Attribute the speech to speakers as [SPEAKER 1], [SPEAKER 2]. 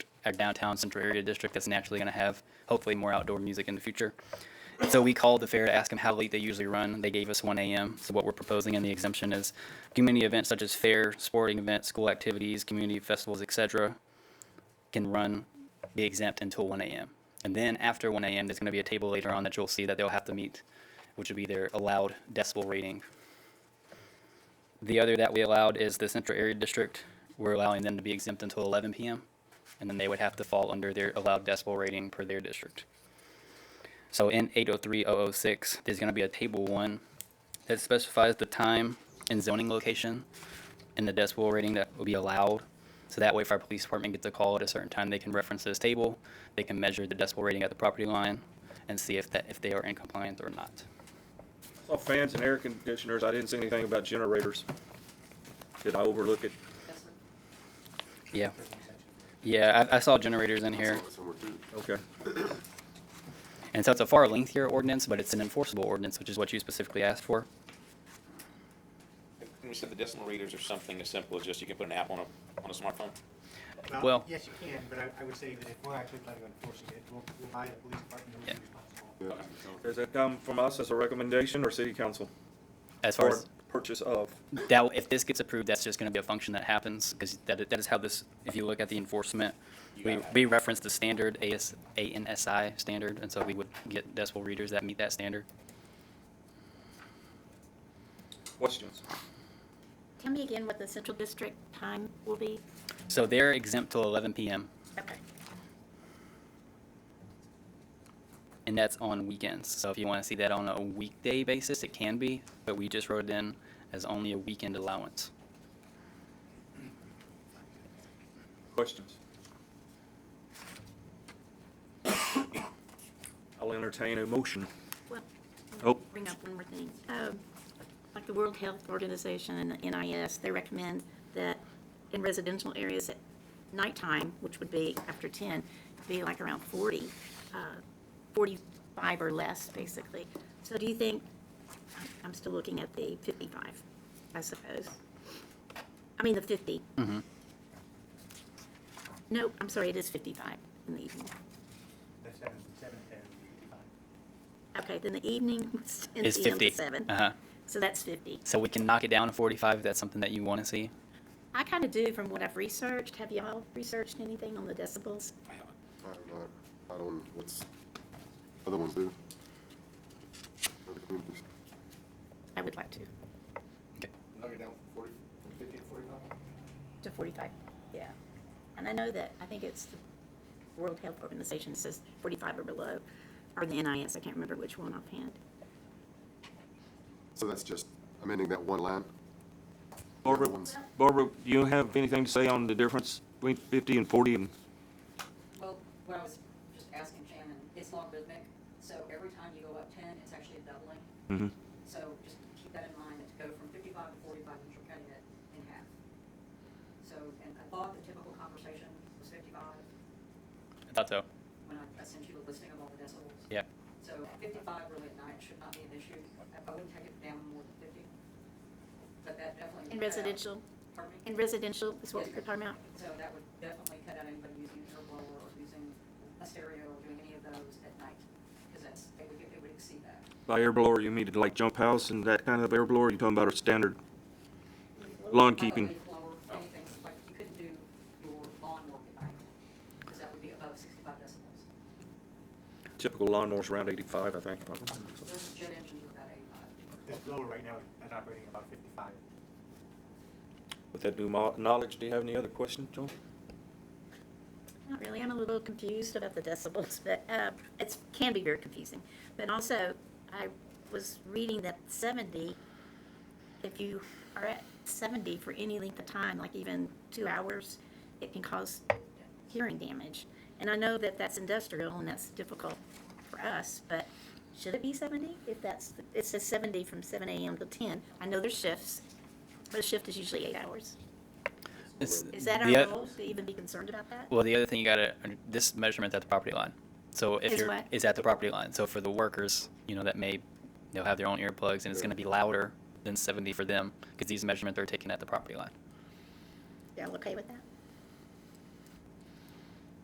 [SPEAKER 1] our downtown central area district that's naturally going to have hopefully more outdoor music in the future. So we called the fair to ask them how late they usually run. They gave us 1 a.m. So what we're proposing in the exemption is community events such as fair, sporting events, school activities, community festivals, etc., can run be exempt until 1 a.m. And then after 1 a.m., there's going to be a table later on that you'll see that they'll have to meet, which would be their allowed decibel rating. The other that we allowed is the central area district. We're allowing them to be exempt until 11 p.m. And then they would have to fall under their allowed decibel rating per their district. So in 803006, there's going to be a table one that specifies the time and zoning location and the decibel rating that will be allowed. So that way, if our police department gets a call at a certain time, they can reference this table, they can measure the decibel rating at the property line, and see if that, if they are in compliance or not.
[SPEAKER 2] Well, fans and air conditioners, I didn't see anything about generators. Did I overlook it?
[SPEAKER 1] Yeah. Yeah, I, I saw generators in here,
[SPEAKER 2] Okay.
[SPEAKER 1] and so it's a far lengthier ordinance, but it's an enforceable ordinance, which is what you specifically asked for.
[SPEAKER 3] And we said the decimal readers are something as simple as just you can put an app on a, on a smartphone?
[SPEAKER 1] Well-
[SPEAKER 4] Yes, you can, but I, I would say that if we're actually planning on enforcing it, we'll rely on the police department who's
[SPEAKER 1] Yeah.
[SPEAKER 4] responsible.
[SPEAKER 2] Does that come from us as a recommendation or city council?
[SPEAKER 1] As far
[SPEAKER 2] Or
[SPEAKER 1] as,
[SPEAKER 2] purchase of?
[SPEAKER 1] that, if this gets approved, that's just gonna be a function that happens, because that, that is how this, if you look at the enforcement, we, we reference the standard AS, ANSI standard, and so we would get decibel readers that meet that standard.
[SPEAKER 2] Questions?
[SPEAKER 5] Tell me again what the central district time will be?
[SPEAKER 1] So they're exempt till 11 PM,
[SPEAKER 5] Okay.
[SPEAKER 1] and that's on weekends. So if you want to see that on a weekday basis, it can be, but we just wrote it in as only a weekend allowance.
[SPEAKER 2] Questions? I'll entertain a motion.
[SPEAKER 5] Well,
[SPEAKER 2] Oh.
[SPEAKER 5] bring up one more thing. Um, Like the World Health Organization and the NIS, they recommend that in residential areas at nighttime, which would be after 10, be like around 40, uh, 45 or less, basically. So do you think, I'm still looking at the 55, I suppose. I mean, the 50. No, I'm sorry, it is 55 in the evening.
[SPEAKER 4] The seven, seven, ten, fifty-five.
[SPEAKER 5] Okay, then the evening was 10
[SPEAKER 1] It's
[SPEAKER 5] p.m. to
[SPEAKER 1] 50.
[SPEAKER 5] 7.
[SPEAKER 1] Uh-huh.
[SPEAKER 5] So that's 50.
[SPEAKER 1] So we can knock it down to 45 if that's something that you want to see.
[SPEAKER 5] I kind of do from what I've researched. Have y'all researched anything on the decibels?
[SPEAKER 6] I don't know, I don't, know what's, other ones do? Other communities.
[SPEAKER 5] I would like to,
[SPEAKER 1] Okay.
[SPEAKER 5] to 45. Yeah. And I know that, I think it's the World Health Organization says 45 or below, or the NIS, I can't remember which one offhand.
[SPEAKER 6] So that's just amending that one line?
[SPEAKER 2] Barbara,
[SPEAKER 6] Ones.
[SPEAKER 2] Barbara, do you have anything to say on the difference between fifty and forty and?
[SPEAKER 7] Well, what I was just asking Shannon, it's logarithmic, so every time you go up ten, it's actually a doubling. So just keep that in mind, that to go from fifty-five to forty-five, means you're cutting it in half. So, and I thought the typical conversation was fifty-five,
[SPEAKER 1] I thought so.
[SPEAKER 7] when I I sent you a listing of all the decibels.
[SPEAKER 1] Yeah.
[SPEAKER 7] So fifty-five really at night should not be an issue, I I wouldn't take it down more than fifty. But that definitely.
[SPEAKER 5] In
[SPEAKER 7] would cut out-
[SPEAKER 5] residential,
[SPEAKER 7] Pardon me?
[SPEAKER 5] in residential is what we're talking about?
[SPEAKER 7] So that would definitely cut out anybody using a blower or using a stereo or doing any of those at night, because that's, it would, it would exceed that.
[SPEAKER 2] By air blower, you mean it like jump house and that kind of air blower? You're talking about a standard? Lawn keeping.
[SPEAKER 7] Probably Blower, anything, like, you couldn't do your lawn work at night, because that would be above sixty-five decibels.
[SPEAKER 2] Typical lawnmower's around eighty-five, I think.
[SPEAKER 7] Those jet engines are about eighty-five.
[SPEAKER 4] The blower right now is operating about fifty-five.
[SPEAKER 2] With that new mo- knowledge, do you have any other questions, John?
[SPEAKER 5] Not really, I'm a little confused about the decibels, but uh, it's, can be very confusing. But also, I was reading that 70, if you are at 70 for any length of time, like even two hours, it can cause hearing damage. And I know that that's industrial and that's difficult for us, but should it be 70? If that's, it says 70 from 7 AM to 10. I know there's shifts, but a shift is usually eight hours.
[SPEAKER 1] It's-
[SPEAKER 5] Is that
[SPEAKER 1] the
[SPEAKER 5] our
[SPEAKER 1] oth-
[SPEAKER 5] role to even be concerned about that?
[SPEAKER 1] Well, the other thing you gotta, this measurement's at the property line. So if
[SPEAKER 5] Is
[SPEAKER 1] you're,
[SPEAKER 5] what?
[SPEAKER 1] is at the property line. So for the workers, you know, that may, they'll have their own earplugs and it's gonna be louder than 70 for them because these measurements are taken at the property line.
[SPEAKER 5] Y'all okay with that?